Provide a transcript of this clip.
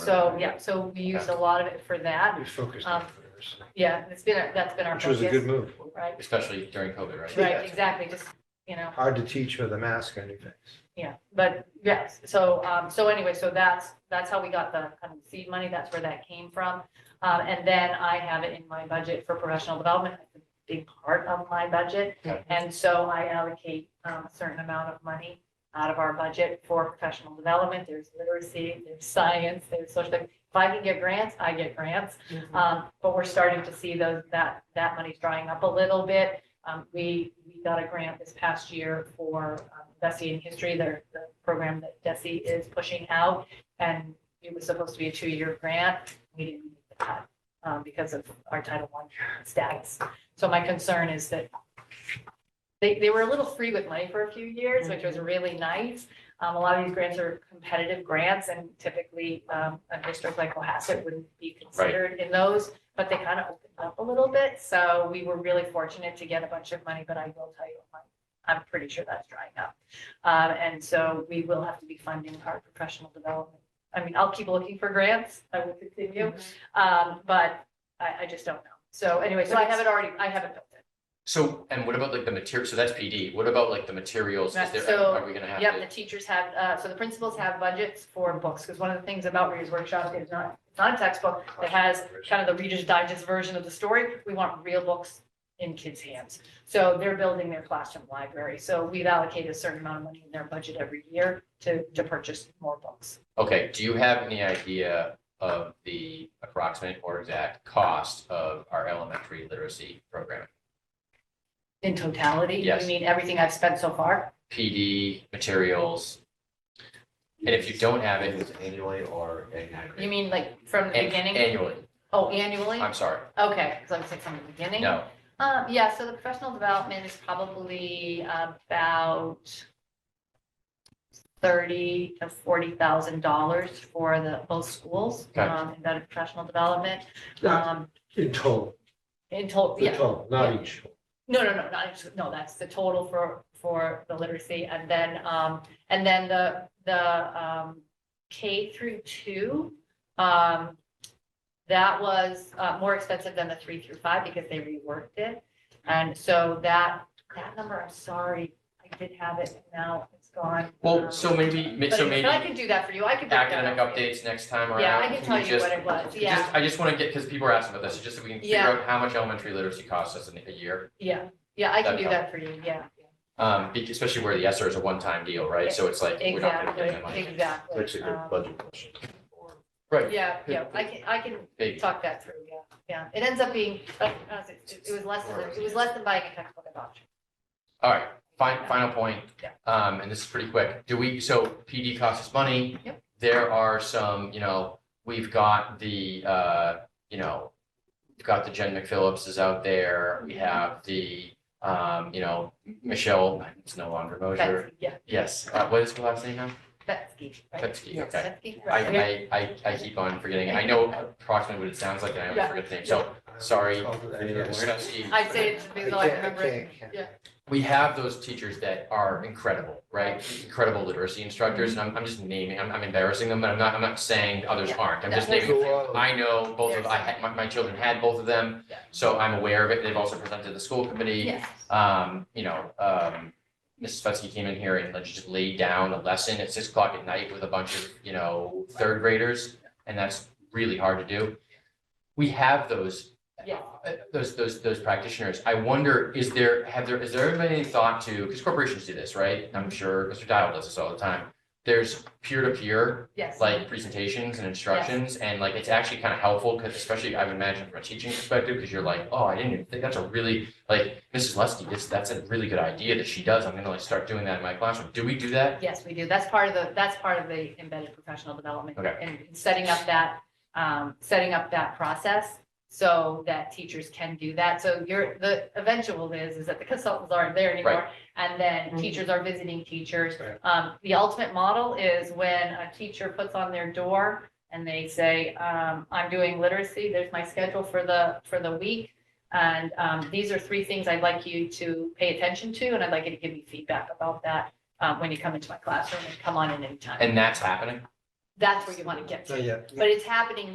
So, yeah, so we used a lot of it for that. We focused Um, on this, Yeah, it's been, our- that's been our which was focus. a good move. Right, especially during COVID, right? right, exactly, just, you know, Hard to teach with a mask on your face. yeah, but yes, so, um, so anyway, so that's, that's how we got the kind of seed money, that's where that came from. Um, and then I have it in my budget for professional development, It's a big part of my budget. Yeah. And so I allocate um, a certain amount of money out of our budget for professional development, there's literacy, there's science, there's social, if I can get grants, I get grants. Um, but we're starting to see those, that, that money's drying up a little bit. Um, we, we got a grant this past year for um, Desi in History, their, the program that Desi is pushing out. And it was supposed to be a two-year grant. We didn't make the cut, um, because of our Title I status. So my concern is that they, they were a little free with money for a few years, which was really nice. Um, a lot of these grants are competitive grants and typically, um, a district like Cohasset wouldn't be considered in those but they kind of opened up a little bit. So we were really fortunate to get a bunch of money, but I will tell you, I'm, I'm pretty sure that's drying up. Um, and so we will have to be funding our professional development. I mean, I'll keep looking for grants. I will continue. Um, but I, I just don't know. So anyway, so I haven't already, I haven't built it. So, and what about like the material, so that's PD, what about like the materials, is Right, there, so, are we gonna have Yep, the to? teachers have, uh, so the principals have budgets for books, because one of the things about Reader's Workshop is not, it's not a textbook that has kind of the Reader's Digest version of the story. We want real books in kids' hands. So they're building their classroom library. So we've allocated a certain amount of money in their budget every year to, to purchase more books. Okay, do you have any idea of the approximate or exact cost of our elementary literacy program? In totality, you Yes. mean everything I've spent so far? PD, materials, and if you don't have it. Annually or? You mean like from the beginning? Annually, Oh, annually? I'm sorry, Okay, because I was like from the beginning. no, Um, yeah, so the professional development is probably about thirty to forty thousand dollars for the both schools, Gotcha. um, embedded professional development. Not Um, In total, in total, the yeah, total, not each. no, no, no, not, each- no, that's the total for, for the literacy, and then, um, and then the, the, um, K through two, um, that was, uh, more expensive than the three through five because they reworked it. And so that, that number, I'm sorry, I did have it, now it's gone. well, Um, so maybe, But so if- but I maybe can do that for you, I can. break that academic out for you. updates next time around. Yeah, I can we tell you just- what it was, Just- yeah, I just want to get, because people are asking about this, just so we can figure Yeah. out how much elementary literacy costs us in a year. yeah, yeah, I can That'd do help. that for you, yeah, Um, be- especially where the ESER is a one-time deal, right? So it's like, we're not gonna exactly, get that money. exactly. Um, question. Right, Yeah, yeah, I can, I can big, talk that through, yeah, yeah. It ends up being, but uh, it it was less than, it was less than buying a textbook at auction. all right, fine, final point. Yeah. Um, and this is pretty quick. Do we, so PD costs us money. Yep. There are some, you know, we've got the, uh, you know, we've got the Jen McPhillips is out there. Mm-hmm. We have the, um, you know, Michelle, it's no longer Mosier. Betsky, yeah, Yes, uh, what is her last name now? Betsky, right? Pepsi, Yes. okay. Betsky, I, right, okay. I, I, I keep on forgetting. I know approximately what it sounds like and I always Yeah. forget the name. So Sorry. we're not Steve. I say it because I remember it. Yeah, We have those teachers that are incredible, right? Incredible literacy instructors. And I'm, I'm just naming, I'm, I'm embarrassing them, but I'm not, I'm not saying others Mm-hmm. Yeah. aren't. I'm Yeah. just naming. I know both of, I had, my, my children had both of them. Yeah. So I'm aware of it. They've also presented to the school committee. yes, um, you know, um, Mrs. Futsky came in here and like just laid down a lesson at six o'clock at night with a bunch of, you know, third graders, and that's really hard to do. We have those, Yeah. uh, those, those, those practitioners. I wonder, is there, have there, is there ever been any thought to, because corporations do this, right? I'm sure Mr. Dial does this all the time. There's peer-to-peer yes. like presentations and instructions and like it's actually kind of helpful because especially I would imagine from a teaching perspective because you're like oh I didn't even think that's a really like Mrs. Lusty this that's a really good idea that she does I'm gonna like start doing that in my classroom do we do that Yes, we do. That's part of the, that's part of the embedded professional development. Okay. And setting up that, um, setting up that process so that teachers can do that. So you're, the eventual is, is that the consultants aren't there anymore. And then Mhm. teachers are visiting teachers. Right. Um, the ultimate model is when a teacher puts on their door and they say, um, I'm doing literacy, there's my schedule for the, for the week. And, um, these are three things I'd like you to pay attention to, and I'd like you to give me feedback about that um, when you come into my classroom and come on in anytime. and that's happening That's where you want to get So, to. yeah. But it's happening